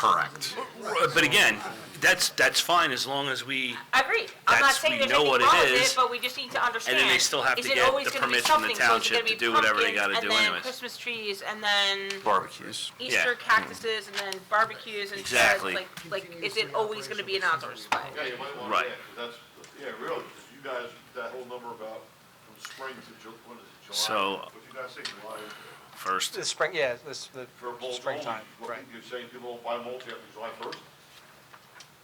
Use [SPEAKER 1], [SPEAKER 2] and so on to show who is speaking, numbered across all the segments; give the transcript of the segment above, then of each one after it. [SPEAKER 1] Correct.
[SPEAKER 2] But again, that's, that's fine as long as we,
[SPEAKER 3] I agree. I'm not
[SPEAKER 2] That's-
[SPEAKER 3] saying
[SPEAKER 2] we
[SPEAKER 3] there's
[SPEAKER 2] know
[SPEAKER 3] anything
[SPEAKER 2] what it
[SPEAKER 3] wrong with
[SPEAKER 2] is.
[SPEAKER 3] it, but we just need to understand.
[SPEAKER 2] then they still have
[SPEAKER 3] is
[SPEAKER 2] to
[SPEAKER 3] it
[SPEAKER 2] get
[SPEAKER 3] always
[SPEAKER 2] the
[SPEAKER 3] gonna be
[SPEAKER 2] permits from the
[SPEAKER 3] something? So is it
[SPEAKER 2] township
[SPEAKER 3] gonna
[SPEAKER 2] to
[SPEAKER 3] be
[SPEAKER 2] do whatever they
[SPEAKER 3] pumpkins
[SPEAKER 2] gotta do
[SPEAKER 3] And then
[SPEAKER 2] anyways.
[SPEAKER 3] Christmas trees, and then
[SPEAKER 1] Barbecues.
[SPEAKER 3] Easter cactuses, and then barbecues, and stuff,
[SPEAKER 2] Exactly.
[SPEAKER 3] like, like, is it always gonna be an outdoor display?
[SPEAKER 4] Yeah, you might want
[SPEAKER 2] Right.
[SPEAKER 4] to, that's, yeah, really, 'cause you guys, that whole number about from spring to Ju, when is it, July?
[SPEAKER 2] So-
[SPEAKER 4] What you guys say, July,
[SPEAKER 2] first,
[SPEAKER 5] The spring, yeah, this, the
[SPEAKER 4] for mulch?
[SPEAKER 5] springtime,
[SPEAKER 4] What,
[SPEAKER 5] right.
[SPEAKER 4] you're saying people won't buy mulch after July first?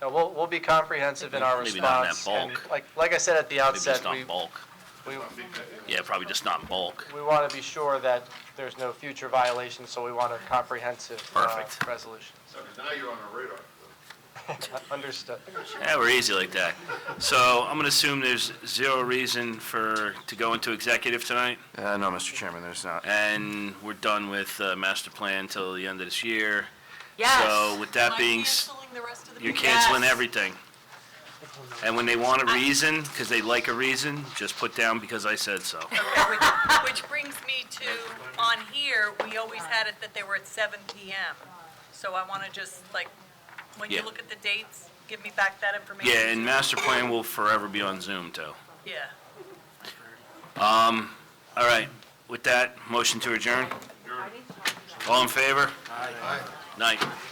[SPEAKER 5] No, we'll, we'll be comprehensive in our
[SPEAKER 2] Maybe not in that
[SPEAKER 5] response. and
[SPEAKER 2] bulk.
[SPEAKER 5] Like, like I said at the
[SPEAKER 2] maybe
[SPEAKER 5] outset,
[SPEAKER 2] just
[SPEAKER 5] we,
[SPEAKER 2] not bulk.
[SPEAKER 5] we,
[SPEAKER 4] I think that,
[SPEAKER 2] Yeah, probably just not in bulk.
[SPEAKER 5] we want to be sure that there's no future violations, so we want a comprehensive, uh,
[SPEAKER 2] Perfect.
[SPEAKER 5] resolution.
[SPEAKER 4] because now you're on our radar.
[SPEAKER 5] Understood.
[SPEAKER 2] Yeah, we're easy like that. So I'm gonna assume there's zero reason for, to go into executive tonight,
[SPEAKER 1] Uh, no, Mr. Chairman, there's not.
[SPEAKER 2] and we're done with, uh, master plan till the end of this year. So
[SPEAKER 3] Yes,
[SPEAKER 2] with that being, s-
[SPEAKER 6] Canceling the rest of the
[SPEAKER 2] you're
[SPEAKER 6] meeting.
[SPEAKER 2] canceling
[SPEAKER 3] Yes.
[SPEAKER 2] everything. And when they want a reason, because they like a reason, just put down because I said so.
[SPEAKER 6] Which brings me to, on here, we always had it that they were at seven PM. So I want to just, like, when
[SPEAKER 2] Yeah.
[SPEAKER 6] you look at the dates, give me back that information.
[SPEAKER 2] Yeah, and master plan will forever be on Zoom too.
[SPEAKER 6] Yeah.
[SPEAKER 2] All right, with that, motion to adjourn? All in favor? Aye. Night.